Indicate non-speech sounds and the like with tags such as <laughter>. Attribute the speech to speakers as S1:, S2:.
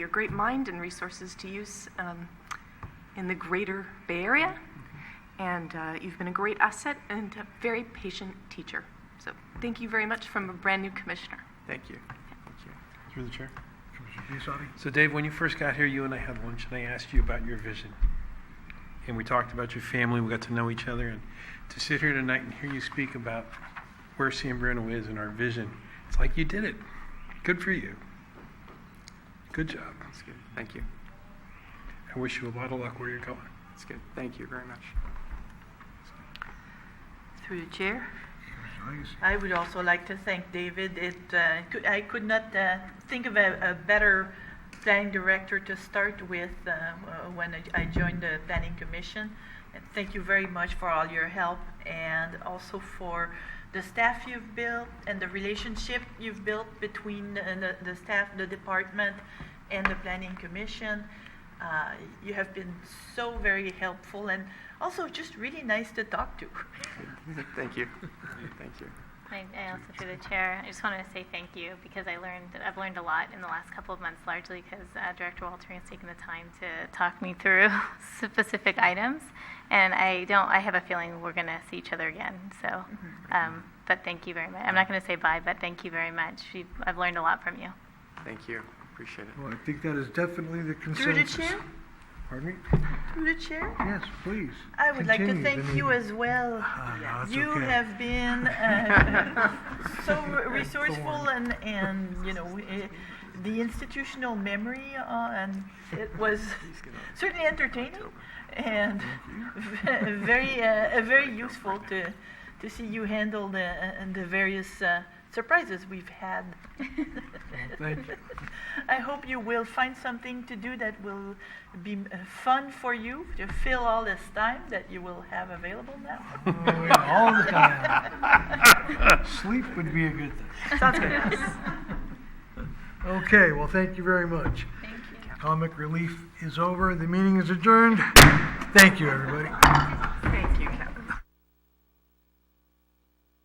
S1: your great mind and resources to use um, in the greater Bay Area.
S2: Mm-hmm.
S1: And uh, you've been a great asset and a very patient teacher. So thank you very much from a brand new commissioner.
S3: Thank you. Thank you.
S4: Through the chair.
S2: Commissioner Biassatti?
S4: So Dave, when you first got here, you and I had lunch, and I asked you about your vision. And we talked about your family, we got to know each other, and to sit here tonight and hear you speak about where San Bruno is and our vision, it's like you did it. Good for you. Good job.
S3: That's good. Thank you.
S4: I wish you a lot of luck where you're going.
S3: That's good. Thank you very much.
S5: Through the chair,
S2: Commissioner Legacy?
S5: I would also like to thank David. It, uh, cou- I could not uh, think of a, a better planning director to start with uh, w- when I- I joined the planning commission. And thank you very much for all your help and also for the staff you've built and the relationship you've built between uh, the, the staff, the department, and the planning commission. Uh, you have been so very helpful and also just really nice to talk to.
S3: Thank you. Thank you.
S6: I, I also, through the chair, I just wanted to say thank you because I learned, I've learned a lot in the last couple of months, largely because uh, Director Walter has taken the time to talk me through <laughs> specific items. And I don't, I have a feeling we're going to see each other again. So,
S5: Mm-hmm.
S6: um, but thank you very much. I'm not going to say bye, but thank you very much. You, I've learned a lot from you.
S3: Thank you. Appreciate it.
S2: Well, I think that is definitely the
S5: Through the
S2: consensus.
S5: chair,
S2: Pardon me?
S5: through the chair.
S2: Yes, please.
S5: I would like to
S2: Continue,
S5: thank
S2: Vinny.
S5: you
S2: <laughs>
S5: as well.
S2: Ah, no, it's
S5: You
S2: okay.
S5: have been
S2: <laughs>
S5: uh, so resourceful and, and, you know, eh, the institutional memory uh, and it was certainly entertaining and very, uh, uh, very useful to, to see you handle the, and the various uh, surprises we've had.
S2: thank you.
S5: I hope you will find something to do that will be uh, fun for you to fill all this time that you will have available now.
S2: Oh, yeah, All the time. Sleep would be a good
S5: <laughs>
S2: thing.
S5: Sounds good.
S2: Okay, well, thank you very much.
S6: <laughs> Thank you.
S2: Comic relief is over. The meeting is adjourned. Thank you, everybody.
S6: Great.